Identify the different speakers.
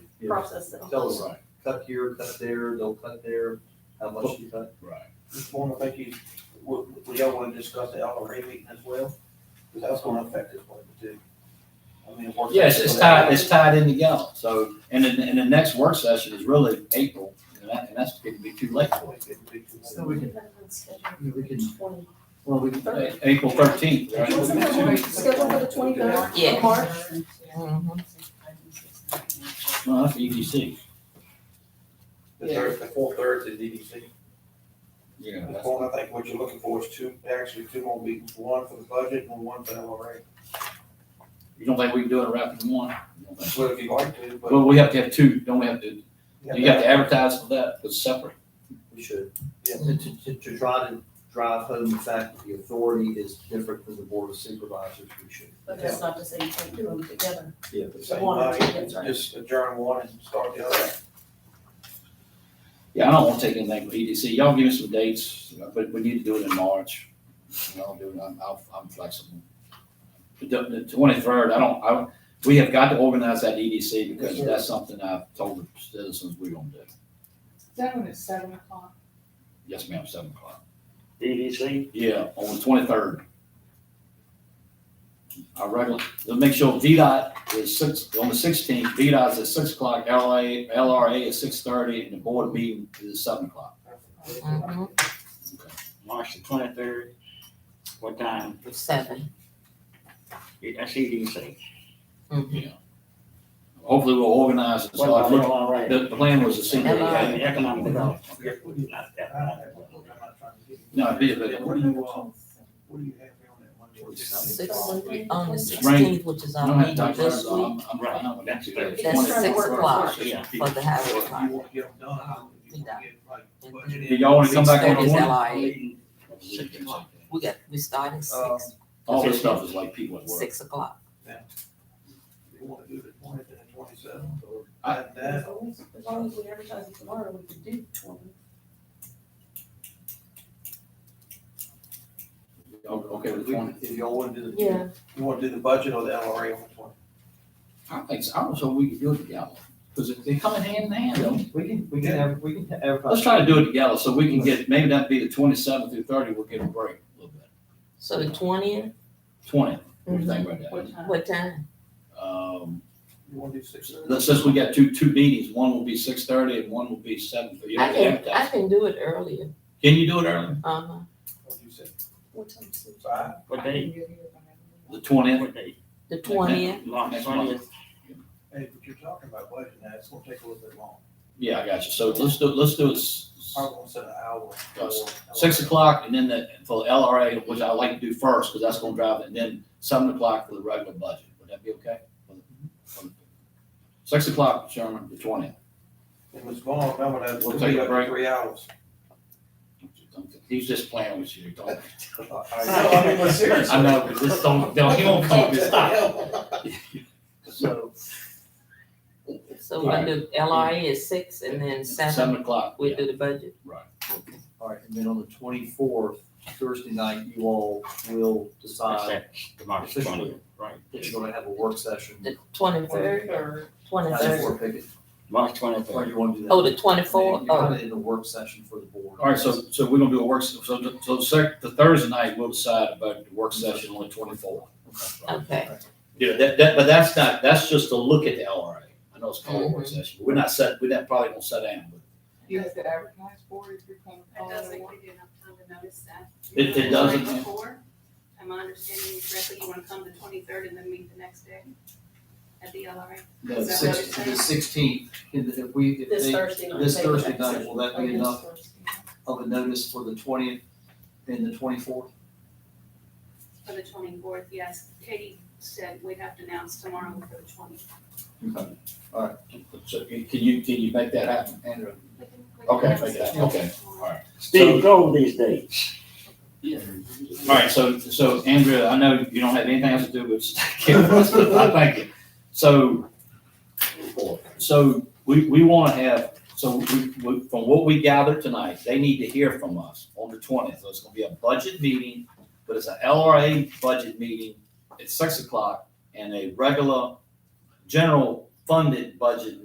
Speaker 1: Yeah.
Speaker 2: process it.
Speaker 1: Tell them, cut here, cut there, don't cut there, how much you cut.
Speaker 3: Right.
Speaker 4: Just wanna thank you, would, would y'all wanna discuss the LRA meeting as well? Cause that's gonna affect this one too. I mean, it works-
Speaker 5: Yes, it's tied, it's tied in together, so, and then, and the next work session is really April, and that, and that's, it'd be too late for you.
Speaker 1: So we can, we can,
Speaker 2: Twenty.
Speaker 1: Hmm. well, we can,
Speaker 5: Uh, April thirteenth, right?
Speaker 2: Wasn't that one scheduled for the twenty-third
Speaker 6: Yeah. Mm-hmm.
Speaker 2: of March?
Speaker 5: Well, that's E EDC.
Speaker 4: The third, the full third to DDC.
Speaker 5: Yeah.
Speaker 4: The full, I think what you're looking for is two, actually two more meetings, one for the budget and one for LRA.
Speaker 5: You don't think we can do it wrapping one? You don't think-
Speaker 4: Well, if you'd like to, but.
Speaker 5: Well, we have to have two, don't we have to, you have
Speaker 4: got
Speaker 5: to advertise for that, it's separate.
Speaker 1: we should.
Speaker 4: Yeah.
Speaker 1: To, to, to try to drive home the fact that the authority is different from the board of supervisors, we should.
Speaker 2: But that's not to say you can't do them together.
Speaker 1: Yeah.
Speaker 4: The same
Speaker 2: One or two,
Speaker 4: night,
Speaker 2: that's right.
Speaker 4: just adjourn one and start the other.
Speaker 5: Yeah, I don't want to take anything from EDC, y'all give me some dates, but we need to do it in March. Y'all do it, I'm, I'll- I'm flexible. The twenty-third, I don't, I, don't- we have got to organize that EDC
Speaker 4: Yes,
Speaker 5: because
Speaker 4: sir.
Speaker 5: that's something I've told the citizens we're gonna do.
Speaker 6: That one at seven o'clock.
Speaker 5: Yes, ma'am, seven o'clock.
Speaker 4: E
Speaker 7: EDC,
Speaker 5: Yeah, on the twenty-third. Our regular, let's make sure VDOT is six, on the sixteenth, VDOT is at six o'clock, LA, LRA is six thirty, and the board meeting is at seven o'clock.
Speaker 7: March the twenty-third, what time?
Speaker 6: Seven.
Speaker 7: That's EDC.
Speaker 5: Yeah. Hopefully we'll organize it,
Speaker 7: What
Speaker 5: so I
Speaker 7: about
Speaker 5: look,
Speaker 7: LRA?
Speaker 5: The, the plan was to see.
Speaker 7: Yeah,
Speaker 6: LRA.
Speaker 7: the Economic development.
Speaker 4: Yeah.
Speaker 7: Not that.
Speaker 4: I don't have one. I'm not trying to get you.
Speaker 5: No, it'd be a bit-
Speaker 4: What do you, uh, what do you have here on that one?
Speaker 6: Six,
Speaker 2: Probably.
Speaker 6: on the
Speaker 5: Rain.
Speaker 6: sixteenth, which is
Speaker 5: I
Speaker 6: our
Speaker 5: don't have
Speaker 6: meeting
Speaker 5: time for
Speaker 6: this
Speaker 5: that,
Speaker 6: week,
Speaker 5: I'm, I'm
Speaker 7: Right.
Speaker 5: fine with that.
Speaker 7: That's-
Speaker 6: that's
Speaker 2: Trying to
Speaker 6: six
Speaker 2: work,
Speaker 6: o'clock
Speaker 2: work.
Speaker 7: Yeah.
Speaker 6: for the highway
Speaker 4: If you
Speaker 6: project.
Speaker 4: want to get them done, I don't think you want to get, like, budgeted.
Speaker 5: Do y'all wanna come back on
Speaker 6: Six thirty is
Speaker 5: the one?
Speaker 6: LIA.
Speaker 5: Six o'clock.
Speaker 6: We got, we start at
Speaker 4: Um,
Speaker 6: six,
Speaker 5: All this stuff is like people at work.
Speaker 6: six o'clock.
Speaker 4: You want to do the twentieth and the twenty-seventh, or
Speaker 5: I-
Speaker 4: add
Speaker 2: As
Speaker 4: that,
Speaker 2: long as- as long as we advertise it tomorrow, we could do twenty.
Speaker 5: O- Okay, with
Speaker 1: We-
Speaker 5: twenty.
Speaker 1: If y'all want to do the.
Speaker 2: Yeah.
Speaker 4: you want to do the budget or the LRA on the twenty?
Speaker 5: I think, so. I was hoping we could do it together, because they come in hand in hand, don't they?
Speaker 1: We can, we can have, we can advertise.
Speaker 5: Let's try to do it together, so we can get, maybe that'd be the twenty-seventh through thirty, we'll get a break a little bit.
Speaker 6: So the twentieth,
Speaker 5: Twenty, what do you think about
Speaker 6: what time? Mm-hmm.
Speaker 5: that? Um,
Speaker 4: You want to do six?
Speaker 5: let's- since we got two, two meetings, one will be six thirty and one will be seven thirty.
Speaker 6: I can, I can do it earlier,
Speaker 5: Can you do it early?
Speaker 6: uh-huh.
Speaker 4: What do you say?
Speaker 2: What time is it?
Speaker 4: Five?
Speaker 7: What day?
Speaker 5: The twentieth?
Speaker 7: What day?
Speaker 6: The twentieth,
Speaker 7: March
Speaker 5: Next month.
Speaker 7: twentieth.
Speaker 4: Hey, but you're talking about budget now, it's gonna take a little bit long.
Speaker 5: Yeah, I got you. So let's do, let's do it s-
Speaker 4: Probably gonna set an hour. for-
Speaker 5: six o'clock and then the, for the LRA, which I like to do first, because that's gonna drive it, and then seven o'clock for the regular budget. Would that be okay? Six o'clock, Sherman, the twentieth.
Speaker 4: And Ms. Vaughn, remember that,
Speaker 5: We'll
Speaker 4: we'll
Speaker 5: take
Speaker 4: be
Speaker 5: a
Speaker 4: up to
Speaker 5: break.
Speaker 4: three hours.
Speaker 5: He's just playing with you. Don't.
Speaker 4: I know, I mean, but seriously.
Speaker 5: I know, but this don't, don't, he won't come up and stop.
Speaker 1: So,
Speaker 6: so we do LRA is six and then seven,
Speaker 5: Seven o'clock.
Speaker 6: we
Speaker 5: yeah,
Speaker 6: do the budget.
Speaker 5: Right.
Speaker 1: all right, and then on the twenty-fourth, Thursday night, you all will decide
Speaker 7: Except the March
Speaker 1: officially.
Speaker 7: twentieth, right.
Speaker 1: that you're gonna have a work session.
Speaker 6: The twenty-third,
Speaker 2: Twenty-third.
Speaker 6: twenty-third,
Speaker 1: Or pick it,
Speaker 7: March
Speaker 1: or
Speaker 7: twenty-third.
Speaker 1: you wanna do that?
Speaker 6: oh, the twenty-fourth,
Speaker 1: You're
Speaker 6: oh,
Speaker 1: kinda in the work session for the board.
Speaker 5: All right, so, so we're gonna do a work, se- so, the- so sec, the Thursday night, we'll decide about the work session on the twenty-fourth.
Speaker 6: okay.
Speaker 5: Yeah, that, that, but that's not, that's just to look at the LRA. I know it's called a work session, but we're not set, we're not, probably won't sit down, but
Speaker 8: You have to advertise for it if you're coming.
Speaker 9: That doesn't give you enough time to notice that.
Speaker 5: It- it
Speaker 9: Right
Speaker 5: doesn't, yeah.
Speaker 9: Before, am I understanding you correctly, you wanna come the twenty-third and then meet the next day at the LRA?
Speaker 1: The six, the sixteenth, if we, if
Speaker 2: This
Speaker 1: they,
Speaker 2: Thursday night.
Speaker 1: this
Speaker 2: take the
Speaker 1: Thursday
Speaker 2: next
Speaker 1: night,
Speaker 2: session.
Speaker 1: will that
Speaker 2: Or
Speaker 1: be
Speaker 2: this
Speaker 1: enough
Speaker 2: Thursday.
Speaker 1: of a notice for the twentieth and the twenty-fourth?
Speaker 9: For the twenty-fourth, yes, Katie said we'd have to announce tomorrow for the twentieth.
Speaker 1: Okay.
Speaker 5: So can you, can you make that happen, Andrew? Okay, make that, okay.
Speaker 7: Steve, go these dates.
Speaker 5: All right, so, so Andrea, I know you don't have anything else to do, but I thank you. So, so we, we want to have, so we, we, from what we gathered tonight, they need to hear from us on the twentieth. So it's going to be a budget meeting, but it's an LRA budget meeting at six o'clock and a regular general funded budget